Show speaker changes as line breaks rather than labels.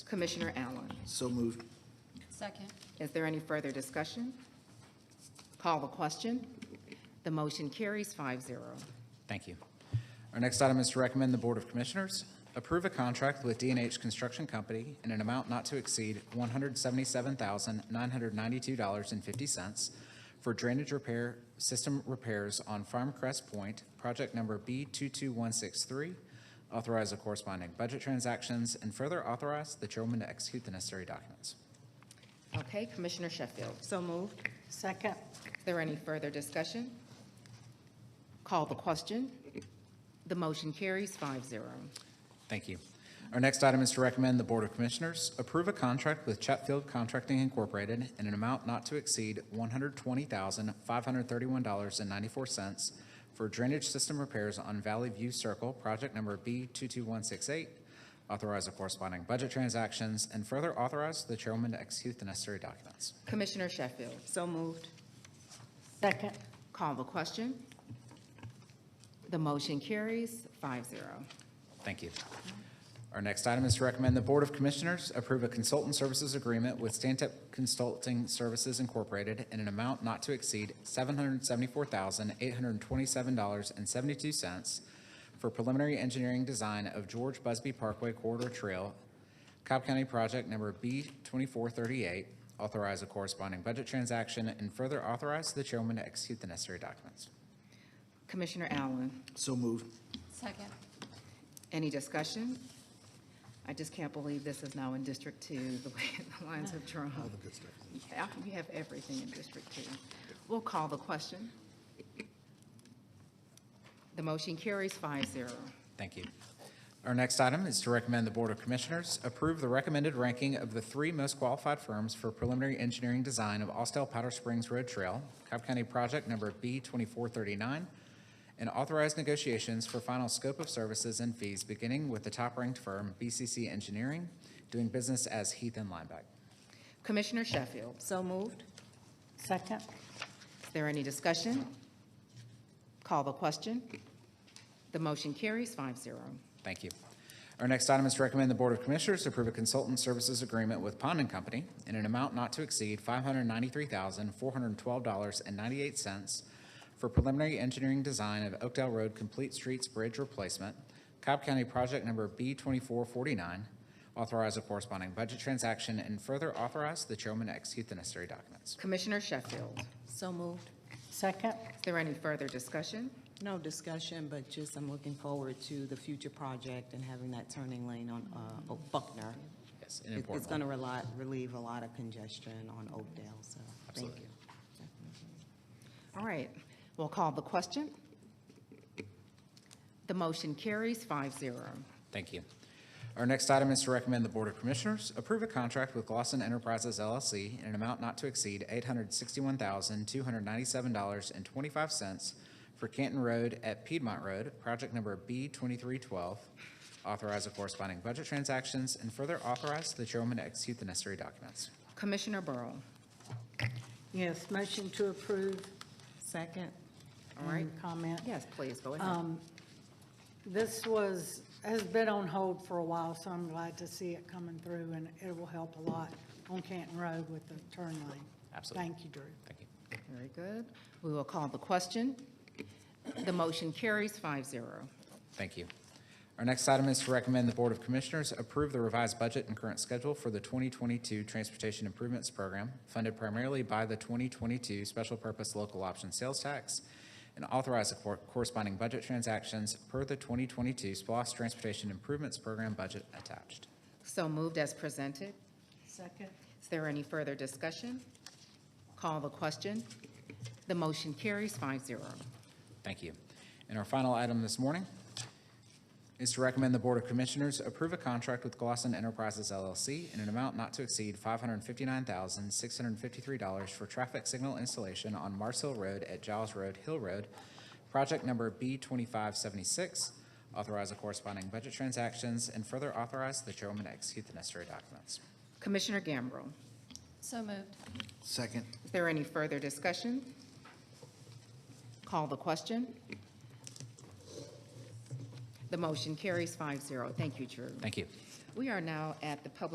Commissioner Allen.
So moved.
Second.
Is there any further discussion? Call the question. The motion carries 5-0.
Thank you. Our next item is to recommend the Board of Commissioners approve a contract with d and H Construction Company in an amount not to exceed $177,992.50 for drainage repair, system repairs on Farm Crest Point, project number B22163. Authorize the corresponding budget transactions and further authorize the chairwoman to execute the necessary documents.
Okay, Commissioner Sheffield,
So moved. Second.
is there any further discussion? Call the question. The motion carries 5-0.
Thank you. Our next item is to recommend the Board of Commissioners approve a contract with Chatfield Contracting Incorporated in an amount not to exceed $120,531.94 for drainage system repairs on Valley View Circle, project number B22168. Authorize the corresponding budget transactions and further authorize the chairwoman to execute the necessary documents.
Commissioner Sheffield,
So moved. Second.
call the question. The motion carries 5-0.
Thank you. Our next item is to recommend the Board of Commissioners approve a consultant services agreement with Stantec Consulting Services Incorporated in an amount not to exceed $774,827.72 for preliminary engineering design of George Busby Parkway Corridor Trail, Cobb County Project Number B2438. Authorize a corresponding budget transaction and further authorize the chairwoman to execute the necessary documents.
Commissioner Allen,
So moved.
Second.
any discussion? I just can't believe this is now in District Two, the way the lines have drawn.
All the good stuff.
Yeah, we have everything in District Two. We'll call the question. The motion carries 5-0.
Thank you. Our next item is to recommend the Board of Commissioners approve the recommended ranking of the three most qualified firms for preliminary engineering design of Austell Powder Springs Road Trail, Cobb County Project Number B2439, and authorize negotiations for final scope of services and fees, beginning with the top-ranked firm, BCC Engineering, doing business as Heath and Lineback.
Commissioner Sheffield,
So moved. Second.
is there any discussion? Call the question. The motion carries 5-0.
Thank you. Our next item is to recommend the Board of Commissioners approve a consultant services agreement with Pond and Company in an amount not to exceed $593,412.98 for preliminary engineering design of Oakdale Road Complete Streets Bridge Replacement, Cobb County Project Number B2449, authorize a corresponding budget transaction, and further authorize the chairman to execute the necessary documents.
Commissioner Sheffield, is
So moved. Second.
there any further discussion?
No discussion, but just I'm looking forward to the future project and having that turning lane on uh, Oak- Buckner.
Yes, an
It- It's
important
going
one.
to relieve a lot of congestion on Oakdale, so thank
Absolutely.
you.
All right, we'll call the question. The motion carries 5-0.
Thank you. Our next item is to recommend the Board of Commissioners approve a contract with Glosson Enterprises LLC in an amount not to exceed $861,297.25 for Canton Road at Piedmont Road, project number B2312. Authorize the corresponding budget transactions and further authorize the chairwoman to execute the necessary documents.
Commissioner Burrow,
Yes, motion to approve.
Second?
All right. Comment.
yes, please, go ahead.
This was, has been on hold for a while, so I'm glad to see it coming through, and it will help a lot on Canton Road with the turn lane.
Absolutely.
Thank you, Drew.
Thank you.
Very good. We will call the question. The motion carries 5-0.
Thank you. Our next item is to recommend the Board of Commissioners approve the revised budget and current schedule for the 2022 Transportation Improvements Program, funded primarily by the 2022 Special Purpose Local Option Sales Tax, and authorize the cor- corresponding budget transactions per the 2022 SPOS Transportation Improvements Program budget attached.
So moved as presented.
Second.
Is there any further discussion? Call the question. The motion carries 5-0.
Thank you. And our final item this morning is to recommend the Board of Commissioners approve a contract with Glosson Enterprises LLC in an amount not to exceed $559,653 for traffic signal installation on Mars Hill Road at Giles Road Hill Road, project number B2576. Authorize the corresponding budget transactions and further authorize the chairwoman to execute the necessary documents.
Commissioner Gambrell,
So moved.
Second.
is there any further discussion? Call the question. The motion carries 5-0. Thank you, Drew.
Thank you.
We are now at the public